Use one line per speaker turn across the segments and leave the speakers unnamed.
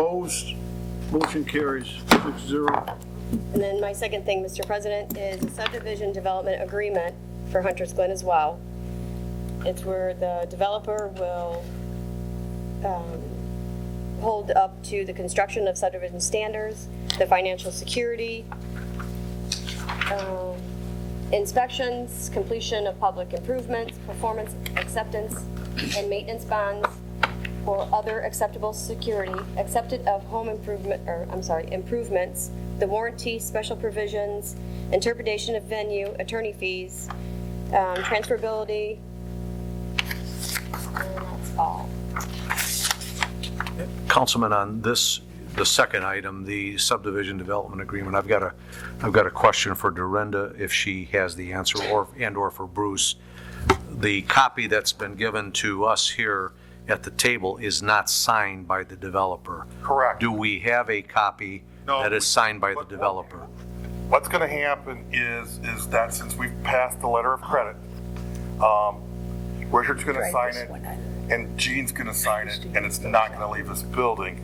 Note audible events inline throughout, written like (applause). Opposed? Motion carries six zero.
And then my second thing, Mr. President, is a subdivision development agreement for Hunter's Glen as well. It's where the developer will um, hold up to the construction of subdivision standards, the financial security, um, inspections, completion of public improvements, performance acceptance, and maintenance bonds, or other acceptable security, accepted of home improvement, or, I'm sorry, improvements, the warranty, special provisions, interpretation of venue, attorney fees, um, transferability, and that's all.
Councilman, on this, the second item, the subdivision development agreement, I've got a, I've got a question for Dorinda, if she has the answer, or, and/or for Bruce. The copy that's been given to us here at the table is not signed by the developer.
Correct.
Do we have a copy
No.
that is signed by the developer?
What's going to happen is, is that since we've passed the letter of credit, um, Richard's going to sign it, and Gene's going to sign it, and it's not going to leave this building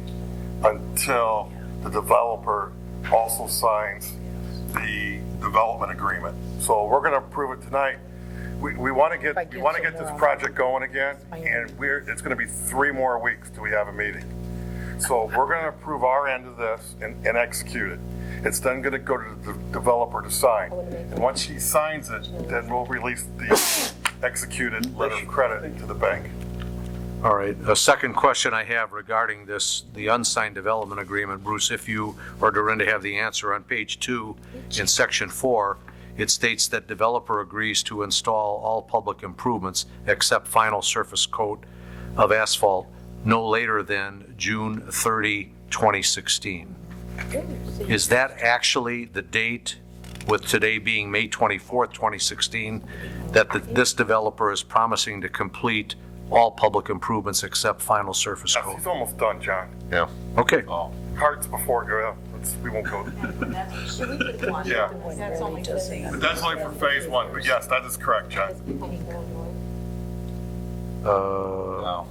until the developer also signs the development agreement. So we're going to approve it tonight. We, we want to get, we want to get this project going again, and we're, it's going to be three more weeks till we have a meeting. So we're going to approve our end of this and, and execute it. It's then going to go to the developer to sign. And once she signs it, then we'll release the executed letter of credit to the bank.
All right, a second question I have regarding this, the unsigned development agreement, Bruce, if you or Dorinda have the answer, on page two, in section four, it states that developer agrees to install all public improvements except final surface coat of asphalt no later than June 30, 2016. Is that actually the date, with today being May 24th, 2016, that the- this developer is promising to complete all public improvements except final surface
Yes,
coat?
He's almost done, John.
Yeah.
Okay,
Oh. Hearts before, yeah, let's- we won't go. Yeah,
That's only just saying.
but that's only for phase one, but yes, that is correct, John.
uh,
No.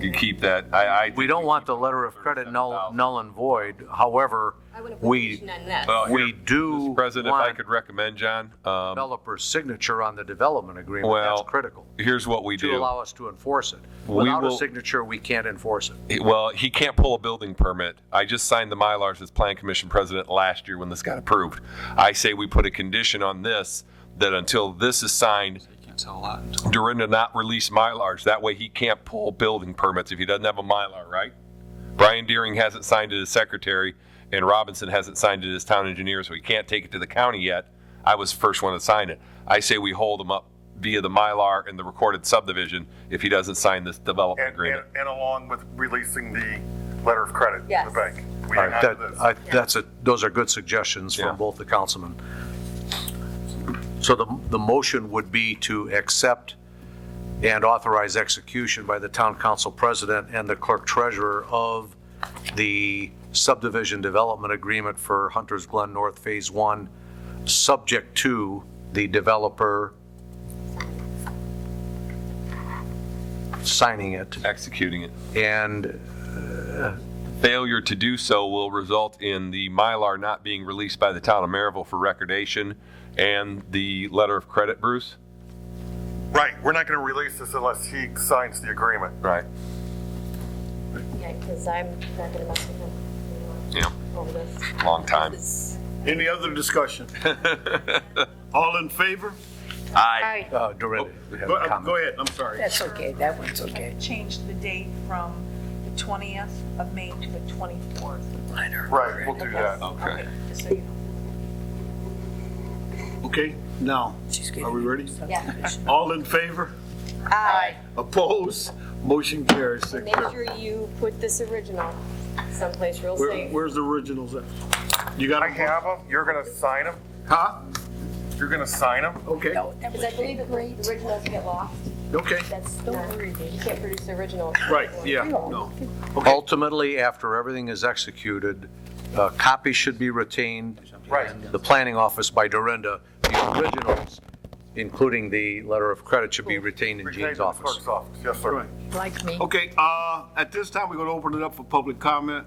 You keep that, I, I.
we don't want the letter of credit null null and void, however, we,
Well, here,
we do
Mr. President, if I
want
could recommend, John, um,
developer's signature on the development agreement,
Well,
that's critical,
here's what we
to
do.
allow us to enforce it.
We
Without a
will-
signature, we can't enforce it.
Well, he can't pull a building permit. I just signed the Mylars as Plan Commission President last year when this got approved. I say we put a condition on this, that until this is signed,
Can't tell a lot until
Dorinda not release Mylars. That way he can't pull building permits if he doesn't have a Mylar, right? Brian Deering hasn't signed it as secretary and Robinson hasn't signed it as town engineer, so he can't take it to the county yet. I was the first one to sign it. I say we hold him up via the Mylar and the recorded subdivision if he doesn't sign this development
And, and,
agreement.
and along with releasing the letter of credit to
Yes.
the bank. We
All
hang
right,
on to
that,
this.
I, that's a, those are good suggestions
Yeah.
from both the councilmen. So the, the motion would be to accept and authorize execution by the town council president and the clerk treasurer of the subdivision development agreement for Hunter's Glen North Phase One, subject to the developer signing it
Executing it.
and
Failure to do so will result in the Mylar not being released by the town of Maryville for recordation and the letter of credit, Bruce?
Right, we're not going to release this unless he signs the agreement.
Right.
Yeah, because I'm not going to mess with him
Yeah,
over this.
long time.
Any other discussion? All in favor?
Aye.
uh, Dorinda. had a
Go uh,
comment.
go ahead, I'm sorry.
That's okay, that one's okay.
change the date from the 20th of May to the 24th.
Right, we'll do that.
Okay.
Just so you know.
Okay, now,
She's
are we
getting
ready? (laughs)
subdivision.
All in favor? Aye. Opposed? Motion carries six
Make
zero.
sure you put this original someplace real
Where,
safe.
where's the originals at? You got
I
them?
have them, you're going to sign them,
Huh?
you're going to sign them.
Okay,
No, that
Because I
would be
believe if the originals get lost,
okay,
that's, not- you can't produce the original.
right, yeah, no. Okay,
Ultimately, after everything is executed, a copy should be retained.
Right.
in The planning office by Dorinda, the originals including the letter of credit, should be retained in
Retained in
Gene's
the
office.
clerk's office, yes, sir.
Right.
like me.
Okay, uh, at this time, we're going to open it up for public comment.